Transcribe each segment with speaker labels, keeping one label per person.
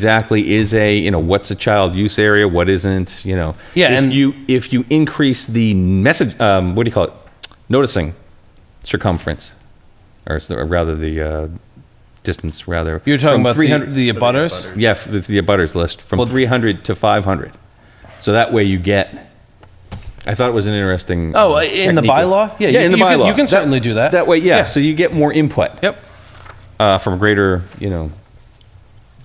Speaker 1: exactly is a you know what's a child use area, what isn't, you know.
Speaker 2: Yeah,
Speaker 1: If
Speaker 2: and-
Speaker 1: you if you increase the message, um, what do you call it? Noticing circumference, or s- or rather the uh, distance, rather.
Speaker 2: You're talking
Speaker 1: from
Speaker 2: about
Speaker 1: 300
Speaker 2: the, the abutters?
Speaker 1: yeah, f- the, the abutters list from
Speaker 2: Well-
Speaker 1: 300 to 500. So that way you get. I thought it was an interesting.
Speaker 2: Oh,
Speaker 1: um,
Speaker 2: in the
Speaker 1: technique of-
Speaker 2: bylaw? Yeah,
Speaker 1: yeah,
Speaker 2: you-
Speaker 1: in the
Speaker 2: you can-
Speaker 1: bylaw.
Speaker 2: you can certainly do that.
Speaker 1: That way, yeah,
Speaker 2: Yeah.
Speaker 1: So you get more input
Speaker 2: Yep.
Speaker 1: uh, from a greater, you know,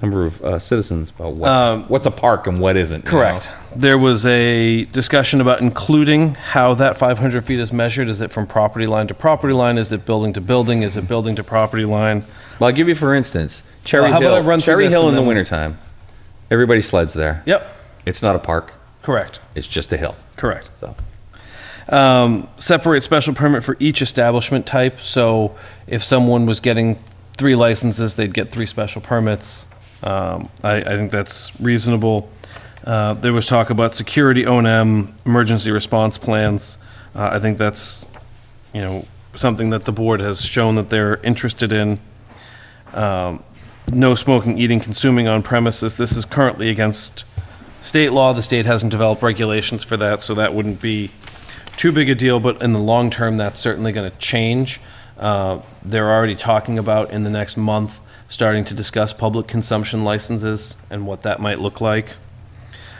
Speaker 1: number of uh, citizens about what's,
Speaker 2: Um,
Speaker 1: what's a park and what isn't. you
Speaker 2: Correct.
Speaker 1: know?
Speaker 2: There was a discussion about including how that 500 feet is measured. Is it from property line to property line? Is it building to building? Is it building to property line?
Speaker 1: Well, I'll give you for instance, Cherry
Speaker 2: Well, how about
Speaker 1: Hill.
Speaker 2: I run through
Speaker 1: Cherry
Speaker 2: this
Speaker 1: Hill in
Speaker 2: and
Speaker 1: the
Speaker 2: then-
Speaker 1: wintertime. Everybody sleds there.
Speaker 2: Yep.
Speaker 1: It's not a park.
Speaker 2: Correct.
Speaker 1: It's just a hill.
Speaker 2: Correct.
Speaker 1: So
Speaker 2: Um, separate special permit for each establishment type. So if someone was getting three licenses, they'd get three special permits. Um, I, I think that's reasonable. Uh, there was talk about security O and M, emergency response plans. Uh, I think that's, you know, something that the board has shown that they're interested in. Um, No smoking, eating, consuming on premises. This is currently against state law. The state hasn't developed regulations for that, so that wouldn't be too big a deal, but in the long term, that's certainly going to change. Uh, They're already talking about in the next month, starting to discuss public consumption licenses and what that might look like.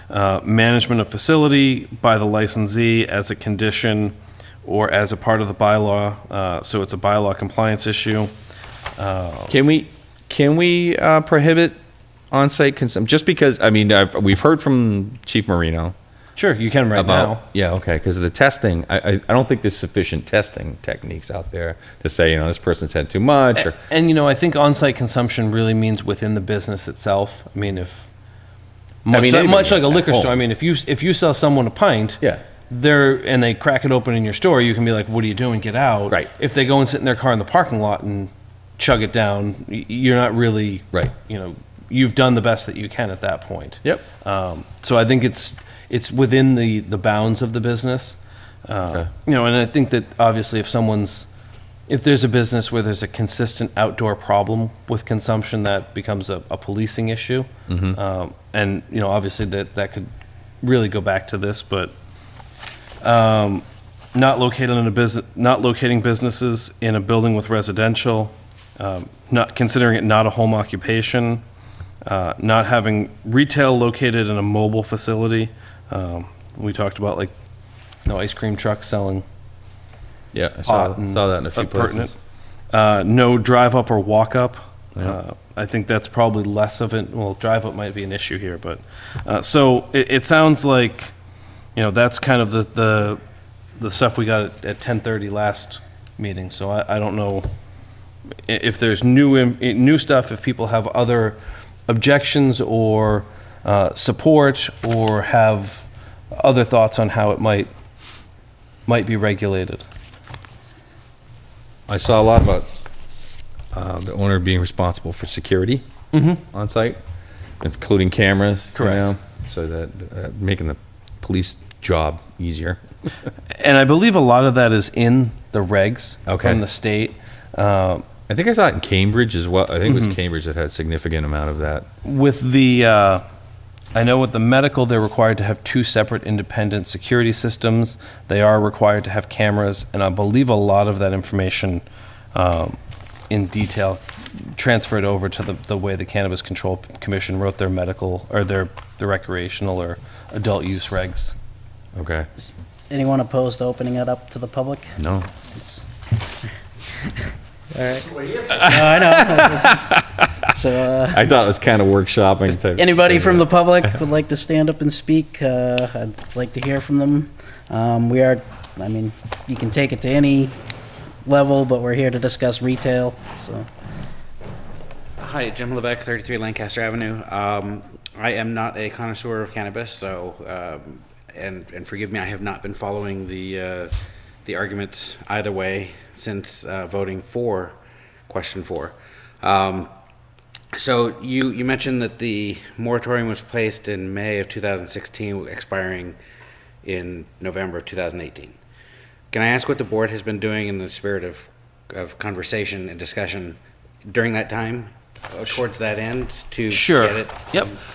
Speaker 2: Uh, Management of facility by the licensee as a condition or as a part of the bylaw, uh, so it's a bylaw compliance issue.
Speaker 1: can we can we uh, prohibit on-site consumption? Just because I mean I've, we've heard from Chief Marino
Speaker 2: Sure, you can right
Speaker 1: about
Speaker 2: now.
Speaker 1: yeah okay because the testing I, I I don't think there's sufficient testing techniques out there to say you know this person's had too much or
Speaker 2: And you know, I think on-site consumption really means within the business itself. I mean, if much,
Speaker 1: mean,
Speaker 2: like,
Speaker 1: anybody
Speaker 2: much like a
Speaker 1: at
Speaker 2: liquor store. I
Speaker 1: home.
Speaker 2: mean, if you if you sell someone a pint,
Speaker 1: Yeah.
Speaker 2: they're and they crack it open in your store, you can be like, "What are you doing? Get out!"
Speaker 1: Right.
Speaker 2: If they go and sit in their car in the parking lot and chug it down, y- you're not really
Speaker 1: Right.
Speaker 2: You know, you've done the best that you can at that point.
Speaker 1: Yep.
Speaker 2: Um, so I think it's it's within the the bounds of the business. Uh, You know, and I think that obviously if someone's if there's a business where there's a consistent outdoor problem with consumption, that becomes a, a policing issue. Um, and you know, obviously that that could really go back to this, but um, not located in a business, not locating businesses in a building with residential, um, not considering it not a home occupation, uh, not having retail located in a mobile facility. Um, we talked about like no ice cream truck selling
Speaker 1: yeah I
Speaker 2: pot
Speaker 1: saw,
Speaker 2: and
Speaker 1: saw that in a few
Speaker 2: Uh, pertinent.
Speaker 1: places
Speaker 2: Uh, no drive up or walk up. Uh, I think that's probably less of it. Well, drive up might be an issue here, but uh, so it, it sounds like you know that's kind of the the, the stuff we got at, at 10:30 last meeting. So I, I don't know i- if there's new im- i- new stuff. If people have other objections or uh, support or have other thoughts on how it might might be regulated.
Speaker 1: I saw a lot about uh, the owner being responsible for security on site, including cameras. you
Speaker 2: Mm-hmm. Correct.
Speaker 1: know, so that uh, making the police job easier.
Speaker 2: And I believe a lot of that is in the regs
Speaker 1: Okay.
Speaker 2: from the state, uh,
Speaker 1: I think I saw it in Cambridge as well. I think
Speaker 2: Mm-hmm.
Speaker 1: it was Cambridge that had a significant amount of that.
Speaker 2: with the. Uh, I know with the medical, they're required to have two separate independent security systems. They are required to have cameras, and I believe a lot of that information um, in detail transferred over to the, the way the Cannabis Control Commission wrote their medical or their, their recreational or adult use regs.
Speaker 1: Okay.
Speaker 3: Anyone opposed to opening it up to the public?
Speaker 1: No.
Speaker 3: Since- All right. No, I know. So, uh,
Speaker 1: I thought it was kind of workshopping type.
Speaker 3: anybody from the public would like to stand up and speak, uh, I'd like to hear from them. Um, We are, I mean, you can take it to any level, but we're here to discuss retail, so.
Speaker 4: Hi, Jim Levesque, 33 Lancaster Avenue. Um, I am not a connoisseur of cannabis, so, um, and, and forgive me, I have not been following the, uh, the arguments either way since uh, voting for question four. Um, so you, you mentioned that the moratorium was placed in May of 2016, expiring in November of 2018. Can I ask what the board has been doing in the spirit of, of conversation and discussion during that time uh, towards that end to
Speaker 2: Sure.
Speaker 4: get it
Speaker 2: Yep.